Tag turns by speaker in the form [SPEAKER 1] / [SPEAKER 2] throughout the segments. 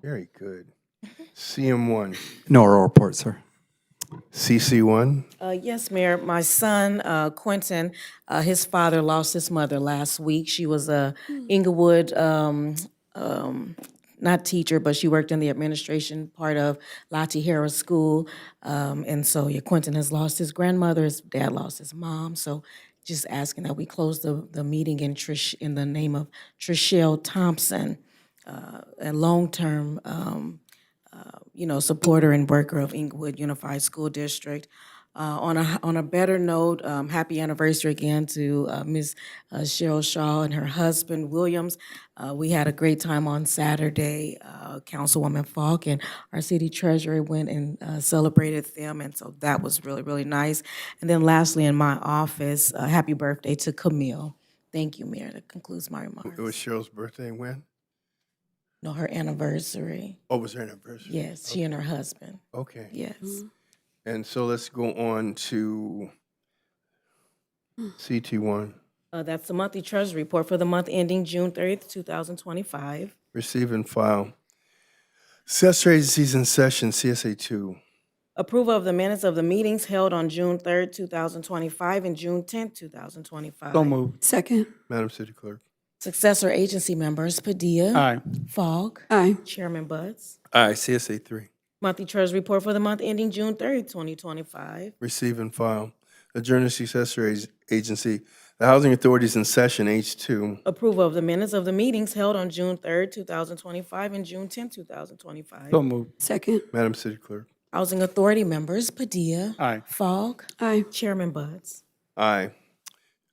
[SPEAKER 1] Very good. CM1,
[SPEAKER 2] No oral report, sir.
[SPEAKER 1] CC1,
[SPEAKER 3] Uh, Yes, Mayor, my son uh, Quentin, uh, his father lost his mother last week. She was a Inglewood, um, um, not teacher, but she worked in the administration part of Lati Harris School. Um, And so, yeah, Quentin has lost his grandmother, his dad lost his mom. So just asking that we close the, the meeting in Trish, in the name of Trishelle Thompson, uh, a long-term um, you know, supporter and worker of Inglewood Unified School District. Uh, on a, on a better note, um, happy anniversary again to, uh, Ms. uh, Cheryl Shaw and her husband Williams. Uh, we had a great time on Saturday. Uh, Councilwoman Falk and our city treasurer went and, uh, celebrated them, and so that was really, really nice. And then lastly, in my office, uh, happy birthday to Camille. Thank you, Mayor. That concludes my
[SPEAKER 1] it was
[SPEAKER 3] remarks.
[SPEAKER 1] Cheryl's birthday when?
[SPEAKER 3] No, her anniversary.
[SPEAKER 1] Oh, was her anniversary?
[SPEAKER 3] Yes, she and her husband.
[SPEAKER 1] Okay.
[SPEAKER 3] Yes.
[SPEAKER 1] And so let's go on to CT1,
[SPEAKER 3] Uh, that's the monthly treasury report for the month ending June thirtieth, two thousand twenty-five.
[SPEAKER 1] receive and file. Accessory agencies in session, CSA2.
[SPEAKER 3] Approval of the minutes of the meetings held on June third, two thousand twenty-five and June tenth, two thousand twenty-five.
[SPEAKER 2] So moved.
[SPEAKER 4] Second.
[SPEAKER 1] Madam City Clerk.
[SPEAKER 3] Successor agency members Padilla.
[SPEAKER 2] Aye.
[SPEAKER 3] Fogg.
[SPEAKER 4] Aye.
[SPEAKER 3] Chairman Buds.
[SPEAKER 1] Aye. CSA3,
[SPEAKER 3] Monthly treasury report for the month ending June thirtieth, twenty twenty-five.
[SPEAKER 1] receive and file. Adjourn to successor ag- agency. The Housing Authorities in session, H2.
[SPEAKER 3] Approval of the minutes of the meetings held on June third, two thousand twenty-five and June tenth, two thousand twenty-five.
[SPEAKER 2] So moved.
[SPEAKER 4] Second.
[SPEAKER 1] Madam City Clerk.
[SPEAKER 3] Housing authority members Padilla.
[SPEAKER 2] Aye.
[SPEAKER 3] Fogg.
[SPEAKER 4] Aye.
[SPEAKER 3] Chairman Buds.
[SPEAKER 1] Aye.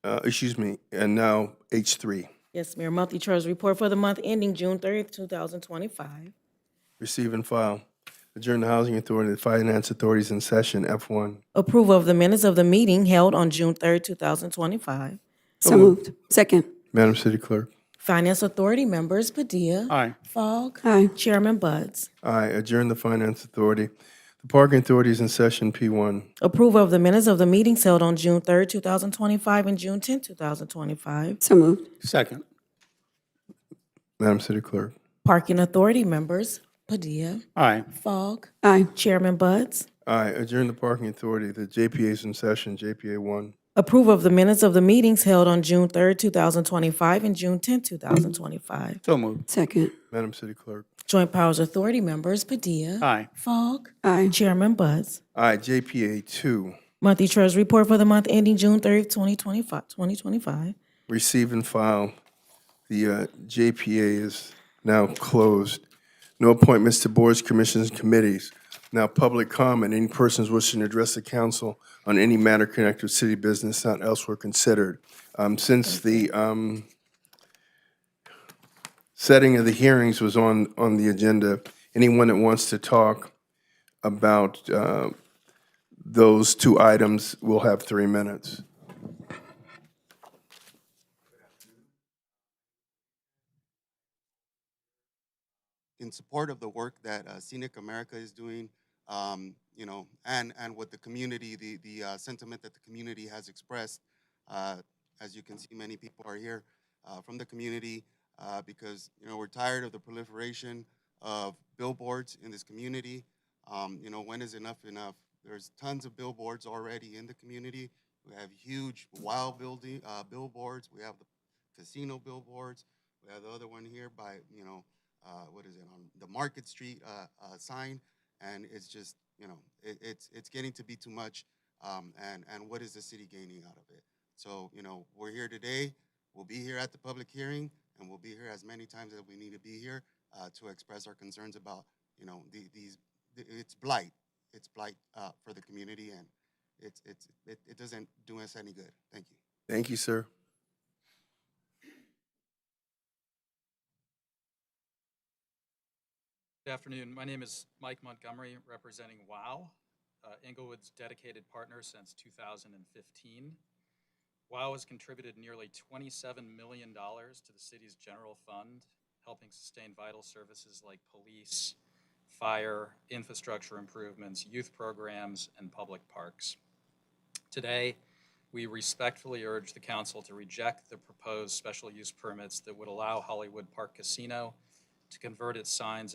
[SPEAKER 1] Uh, Excuse me, and now H3.
[SPEAKER 3] Yes, Mayor, monthly treasury report for the month ending June thirtieth, two thousand twenty-five.
[SPEAKER 1] Receive and file. Adjourn the Housing Authority, the Finance Authorities in session, F1.
[SPEAKER 3] Approval of the minutes of the meeting held on June third, two thousand twenty-five.
[SPEAKER 4] So moved. Second.
[SPEAKER 1] Madam City Clerk.
[SPEAKER 3] Finance Authority members Padilla.
[SPEAKER 2] Aye.
[SPEAKER 3] Fogg.
[SPEAKER 4] Aye.
[SPEAKER 3] Chairman Buds.
[SPEAKER 1] Aye. Adjourn the Finance Authority. The Parking Authorities in session, P1.
[SPEAKER 3] Approval of the minutes of the meetings held on June third, two thousand twenty-five and June tenth, two thousand twenty-five.
[SPEAKER 4] So moved.
[SPEAKER 2] Second.
[SPEAKER 1] Madam City Clerk.
[SPEAKER 3] Parking Authority members Padilla.
[SPEAKER 2] Aye.
[SPEAKER 3] Fogg.
[SPEAKER 4] Aye.
[SPEAKER 3] Chairman Buds.
[SPEAKER 1] Aye. Adjourn the Parking Authority, the JPA's in session, JPA1.
[SPEAKER 3] Approval of the minutes of the meetings held on June third, two thousand twenty-five and June tenth, two thousand twenty-five.
[SPEAKER 2] So moved.
[SPEAKER 4] Second.
[SPEAKER 1] Madam City Clerk.
[SPEAKER 3] Joint Powers Authority members Padilla.
[SPEAKER 2] Aye.
[SPEAKER 3] Fogg.
[SPEAKER 4] Aye.
[SPEAKER 3] Chairman Buds.
[SPEAKER 1] Aye. JPA2.
[SPEAKER 3] Monthly Treasury Report for the month ending June 30th, 2025, 2025.
[SPEAKER 1] Receive and file. The uh, JPA is now closed. No appointments to boards, commissions, and committees. Now, public comment, any persons wishing to address the council on any matter connected with city business not elsewhere considered. Um, Since the um, setting of the hearings was on, on the agenda, anyone that wants to talk about uh, those two items will have three minutes.
[SPEAKER 5] in support of the work that uh, Scenic America is doing, um, you know, and and what the community, the the uh, sentiment that the community has expressed. Uh, as you can see, many people are here uh, from the community uh, because you know we're tired of the proliferation of billboards in this community. Um, you know, when is enough enough? There's tons of billboards already in the community. We have huge wild building uh, billboards. We have the casino billboards. We have the other one here by you know uh, what is it on the Market Street uh, uh, sign, and it's just you know it, it's it's getting to be too much, um, and and what is the city gaining out of it? So you know we're here today, we'll be here at the public hearing, and we'll be here as many times as we need to be here uh, to express our concerns about you know the, these the, it's blight, it's blight uh, for the community, and it's it's it, it doesn't do us any good. Thank you.
[SPEAKER 1] Thank you, sir.
[SPEAKER 6] Good afternoon. My name is Mike Montgomery, representing WOW, uh, Inglewood's dedicated partner since 2015. WOW has contributed nearly $27 million to the city's general fund, helping sustain vital services like police, fire, infrastructure improvements, youth programs, and public parks. Today, we respectfully urge the council to reject the proposed special use permits that would allow Hollywood Park Casino to convert its signs